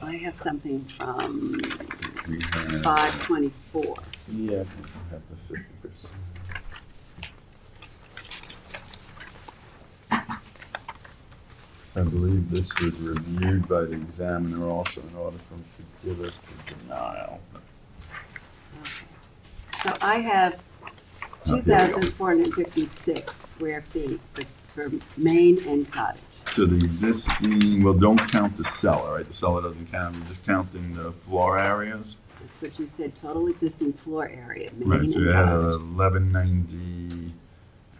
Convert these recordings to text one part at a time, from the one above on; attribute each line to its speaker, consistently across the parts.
Speaker 1: I have something from
Speaker 2: We have-
Speaker 1: five twenty-four.
Speaker 2: Yeah, I think we have the fifty percent. I believe this was reviewed by the examiner also in order for him to give us the denial.
Speaker 1: So I have
Speaker 2: Oh,
Speaker 1: two
Speaker 2: there we go.
Speaker 1: thousand four hundred fifty-six square feet for, for main and cottage.
Speaker 2: So the existing, well, don't count the cellar, right? The cellar doesn't count, we're just counting the floor areas.
Speaker 1: That's what you said, total existing floor area, main
Speaker 2: Right,
Speaker 1: and
Speaker 2: so we had
Speaker 1: cottage.
Speaker 2: eleven ninety,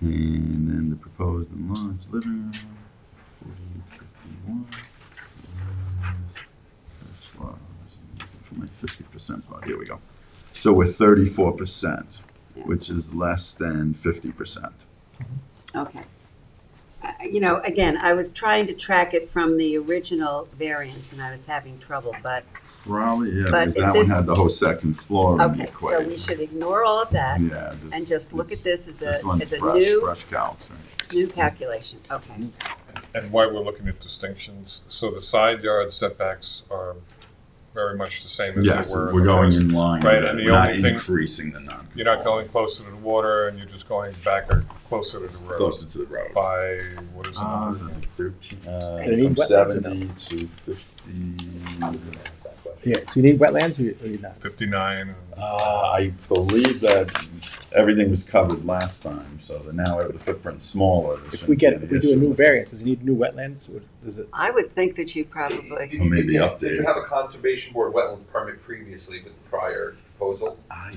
Speaker 2: and then the proposed enlarged living room, forty fifty-one. That's why I was looking for my fifty percent part, here we go. So we're thirty-four percent,
Speaker 1: Yeah.
Speaker 2: which is less than fifty percent. uh,
Speaker 1: Okay. I- I- You know, again, I was trying to track it from the original variance and I was having trouble, but,
Speaker 2: Probably, yeah,
Speaker 1: But
Speaker 2: because
Speaker 1: if
Speaker 2: that one
Speaker 1: this-
Speaker 2: had the whole second floor in the
Speaker 1: okay, so
Speaker 2: equation.
Speaker 1: we should ignore all of that
Speaker 2: Yeah.
Speaker 1: and just look at
Speaker 2: it's-
Speaker 1: this as a,
Speaker 2: This one's
Speaker 1: as a
Speaker 2: fresh,
Speaker 1: new,
Speaker 2: fresh calcs, right?
Speaker 1: new calculation, okay.
Speaker 3: And why we're looking at distinctions, so the side yard setbacks are very much the same as
Speaker 2: Yes,
Speaker 3: they were. in
Speaker 2: we're
Speaker 3: the
Speaker 2: going
Speaker 3: first.
Speaker 2: in line,
Speaker 3: Right,
Speaker 2: with it.
Speaker 3: and the
Speaker 2: we're not
Speaker 3: only thing-
Speaker 2: increasing the non
Speaker 3: You're not going closer to the water, and you're just going back or closer to the road
Speaker 2: Closer to the road.
Speaker 3: by, what is it?
Speaker 2: Uh,
Speaker 3: number?
Speaker 2: thirteen,
Speaker 4: They need
Speaker 2: uh, from
Speaker 4: wetlands
Speaker 2: seventy to fifty.
Speaker 4: Yeah, do you need wetlands or or you're not?
Speaker 3: 59, and
Speaker 2: Uh, I believe that everything was covered last time, so that now the footprint's smaller. there
Speaker 4: If
Speaker 2: shouldn't
Speaker 4: we get,
Speaker 2: be an
Speaker 4: if we do a
Speaker 2: issue
Speaker 4: new
Speaker 2: with-
Speaker 4: variance, does it need new wetlands or does it?
Speaker 1: I would think that you probably,
Speaker 2: Or maybe
Speaker 5: You- you- Did you
Speaker 2: updated.
Speaker 5: have a conservation board wetlands permit previously with the prior proposal?
Speaker 2: I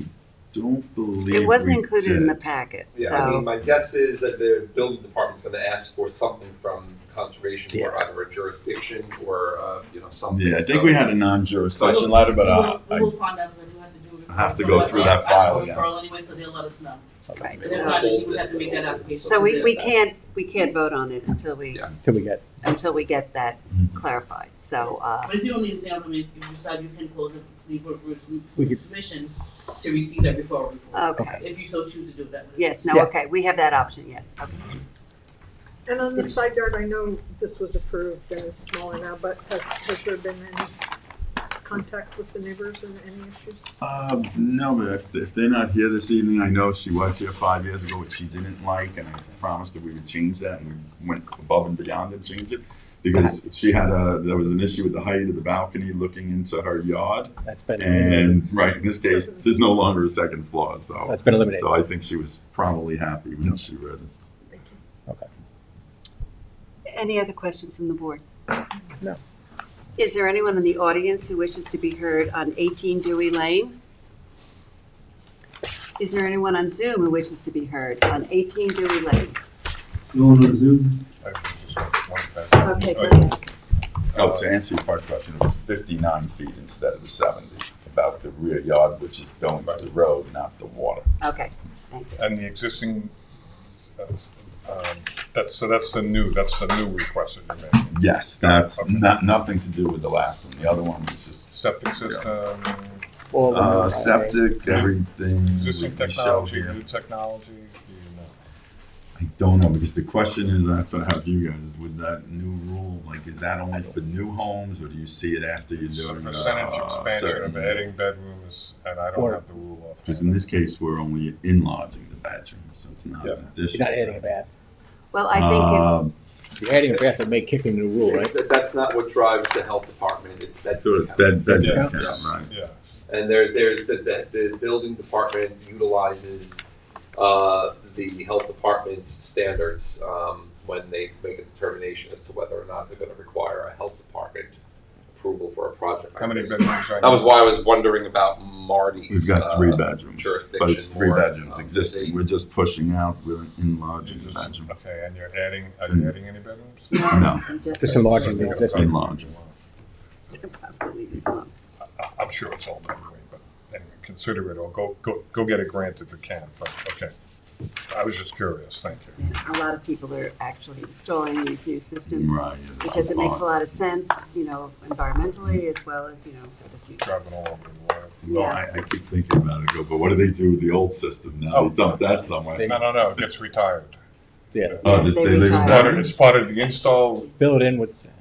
Speaker 2: don't believe.
Speaker 1: it wasn't
Speaker 2: we
Speaker 1: included in the
Speaker 2: did.
Speaker 1: packet,
Speaker 5: Yeah, I mean,
Speaker 1: so,
Speaker 5: my guess is that the building department's gonna ask for something from conservation board, either a jurisdiction or, uh, you know, something.
Speaker 2: Yeah, I think
Speaker 5: So-
Speaker 2: we had a non-jurisdiction letter, but uh,
Speaker 6: We
Speaker 2: I,
Speaker 6: will find out because I do have to do a
Speaker 2: I have to
Speaker 6: referral.
Speaker 2: go through that
Speaker 6: I have
Speaker 2: file
Speaker 6: to do
Speaker 2: again.
Speaker 6: a referral anyway, so they'll let us know.
Speaker 1: right.
Speaker 6: If
Speaker 1: So-
Speaker 6: not, then you would have to make that application.
Speaker 1: So we,
Speaker 6: to
Speaker 1: we
Speaker 6: the-
Speaker 1: can't, we can't vote on it until we,
Speaker 5: Yeah.
Speaker 4: Can we get?
Speaker 1: until we get that
Speaker 2: Mhm.
Speaker 1: clarified, so, uh,
Speaker 6: But if you don't need anything else, I mean, if you decide you can close it, leave for
Speaker 4: We could- Uh,
Speaker 6: submissions to receive that referral report.
Speaker 1: okay.
Speaker 6: If you so choose to do that.
Speaker 1: Yes, no,
Speaker 4: Yeah.
Speaker 1: okay, we have that option, yes, okay.
Speaker 7: And on the side yard, I know this was approved and it's smaller now, but has, has there been any contact with the neighbors and any issues?
Speaker 2: Uh, no, but if, if they're not here this evening, I know she was here five years ago, which she didn't like, and I promised that we would change that, and we went above and beyond to change it. Because she had a, there was an issue with the height of the balcony looking into her yard,
Speaker 4: That's been, eliminated.
Speaker 2: and, right, in this case, there's no longer a second floor, so.
Speaker 4: that's been eliminated.
Speaker 2: So I think she was probably happy when she read it.
Speaker 7: Thank you.
Speaker 1: Any other questions from the board?
Speaker 4: No.
Speaker 1: Is there anyone in the audience who wishes to be heard on 18 Dewey Lane? Is there anyone on Zoom who wishes to be heard on 18 Dewey Lane?
Speaker 3: I can just one back.
Speaker 1: Okay, go
Speaker 3: Oh,
Speaker 1: ahead.
Speaker 2: Oh, to answer your first question, it was fifty-nine feet instead of the seventy, about the rear yard, which is going to the road, not the water.
Speaker 1: Okay, thank you.
Speaker 3: And the existing, um, that's, so that's the new, that's the new request that you're making.
Speaker 2: Yes, that's
Speaker 3: Okay.
Speaker 2: not, nothing to do with the last one. The other one was just
Speaker 3: Septic system,
Speaker 4: All
Speaker 2: uh,
Speaker 4: eliminated.
Speaker 2: septic, everything.
Speaker 3: existing
Speaker 2: we showed
Speaker 3: technology,
Speaker 2: here.
Speaker 3: new technology, you know.
Speaker 2: I don't know, because the question is, that's what I have you guys, with that new rule, like, is that only for new homes, or do you see it after you
Speaker 3: It's
Speaker 2: do?
Speaker 3: a
Speaker 2: it, uh,
Speaker 3: percentage expansion of
Speaker 2: certain-
Speaker 3: adding bedrooms, and I don't
Speaker 4: Or-
Speaker 3: have the rule off.
Speaker 2: Because in this case, we're only enlarging the bedroom, so it's not
Speaker 3: Yeah.
Speaker 2: an
Speaker 4: You're
Speaker 2: addition.
Speaker 4: not adding a bath.
Speaker 1: Well, I think
Speaker 2: Um,
Speaker 4: If you're adding a bath, it may kick in the rule,
Speaker 5: It's,
Speaker 4: right?
Speaker 5: that's not what drives the health department, it's that.
Speaker 2: So it's bed, bedroom
Speaker 4: Yeah.
Speaker 2: count, right?
Speaker 3: Yeah,
Speaker 5: And there, there's, the, the, the building department utilizes, uh, the health department's standards, um, when they make a determination as to whether or not they're gonna require a health department approval for a project.
Speaker 3: how many
Speaker 5: That
Speaker 3: bedrooms? are-
Speaker 5: was why I was wondering about Marty's.
Speaker 2: We've got three
Speaker 5: uh,
Speaker 2: bedrooms, but it's
Speaker 5: jurisdiction
Speaker 2: three
Speaker 5: more,
Speaker 2: bedrooms
Speaker 5: um,
Speaker 2: existing.
Speaker 5: they-
Speaker 2: We're just pushing out, we're enlarging the bedroom.
Speaker 3: Okay, and you're adding, are
Speaker 2: Mm-hmm.
Speaker 3: you adding any bedrooms?
Speaker 2: No,
Speaker 1: it just
Speaker 4: Just enlarging the existing.
Speaker 2: enlarging.
Speaker 1: probably wrong.
Speaker 3: I- I'm sure it's all done anyway, but, and consider it, or go, go, go get a grant if you can, but, okay. I was just curious, thank you.
Speaker 1: Yeah, A lot of people are actually installing these new systems
Speaker 2: Right. yeah,
Speaker 1: because
Speaker 2: that's
Speaker 1: it makes a lot of sense, you know, environmentally as well as, you know, for the future.
Speaker 3: Driving all over the water.
Speaker 2: Well, I, I keep thinking about it, go, but what do they do with the old system now?
Speaker 3: Oh.
Speaker 2: They dump that somewhere.
Speaker 3: No, no, no, it gets retired.
Speaker 4: Yeah.
Speaker 2: Oh, just
Speaker 1: They
Speaker 2: they leave it
Speaker 1: retire.
Speaker 3: Part of-
Speaker 2: there?
Speaker 3: It's part of the install,
Speaker 4: Fill it in with